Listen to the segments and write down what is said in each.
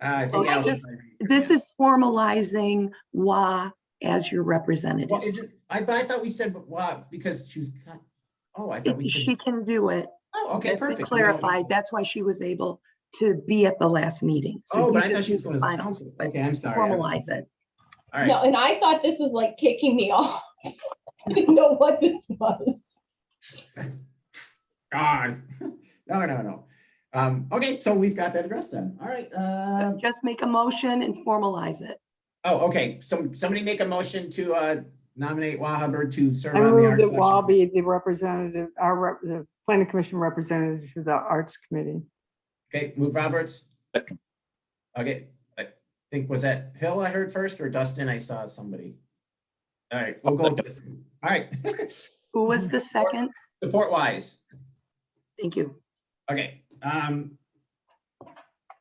Ah, I So think I Allison just- might be- This is formalizing WA as your Well, is representative. it, I, but I thought we said, but why, because she was, co- oh, I thought we She could, can do it. oh, okay, That's been perfect. Clarified. That's why she was able to be at the last meeting. So Oh, you but I thought just she was need going as find- counsel. Okay, I'm sorry. I'm sorry. Formalize it. All No, right, and I thought this was like kicking me off. I didn't know what this was. God. No, no, no. Um, okay, so we've got that addressed then. All right, uh, Just make a motion and formalize it. oh, okay, some, somebody make a motion to, uh, nominate Wahhaber to serve I on the move arts that Wall selection. be the representative, our, rep- the planning commission representative to the arts committee. Okay, move Roberts. Second. Okay, I think, was that Hill I heard first or Dustin? I saw somebody. All right, we'll go with this. All right. Who was the second? Support wise. Thank you. Okay, um.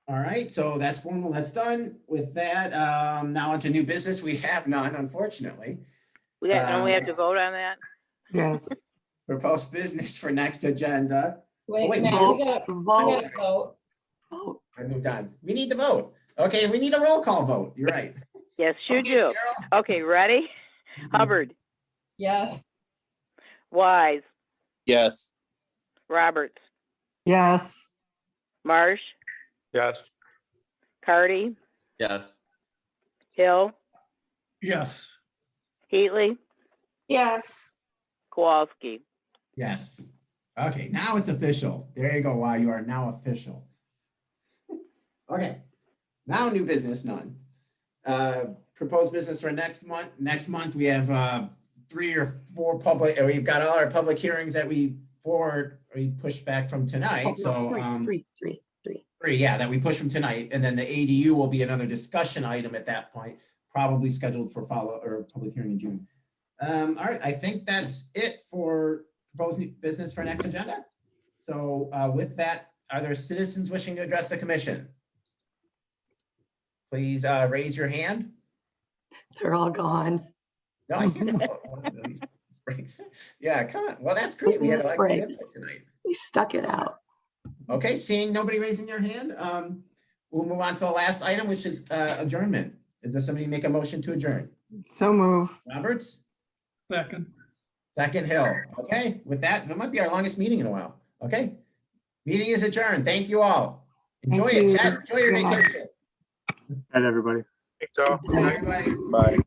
All right, so that's formal, that's done. With that, um, now onto new business. We have none, unfortunately. We got, don't we have Uh, to vote on that? Yes, Proposed business for next agenda. Wait, Oh. Wait, Matt, vote. we gotta, we Vote, gotta vote. vote. I moved on. We need to vote. Okay, we need a roll call vote. You're right. Yes, you Okay, do. Cheryl? Okay, ready? Hubbard, Yes, Wise, Yes. Roberts, yes, Marsh, Yes. Cardy, Yes. Hill, Yes. Heatley, yes. Kowalski. Yes. Okay, now it's official. There you go. Wow, you are now official. Okay, now new business, none. Uh, proposed business for next month. Next month, we have, uh, three or four public, uh, we've got all our public hearings that we forward, we pushed back from Oh, tonight, no, so, three, um, Three, three, three. three, yeah, that we pushed from tonight, and then the ADU will be another discussion item at that point, probably scheduled for follow, or public hearing in June. Um, all right, I think that's it for proposed new business for next agenda. So, uh, with that, are there citizens wishing to address the commission? Please, uh, raise your hand. They're all gone. No, I see. no Oh, one of these breaks. Yeah, come on. Well, that's great. We had a lot of good Breaks. input tonight. They stuck it out. Okay, seeing nobody raising their hand, um, we'll move on to the last item, which is uh, adjournment. Does somebody make a motion to adjourn? so move. Roberts, Second. second Hill. Okay, with that, that might be our longest meeting in a while. Okay. Meeting is adjourned. Thank you all. Enjoy Thank it. you. Chad. Enjoy your Good night. vacation. Night, everybody. Think so. Everybody. Bye.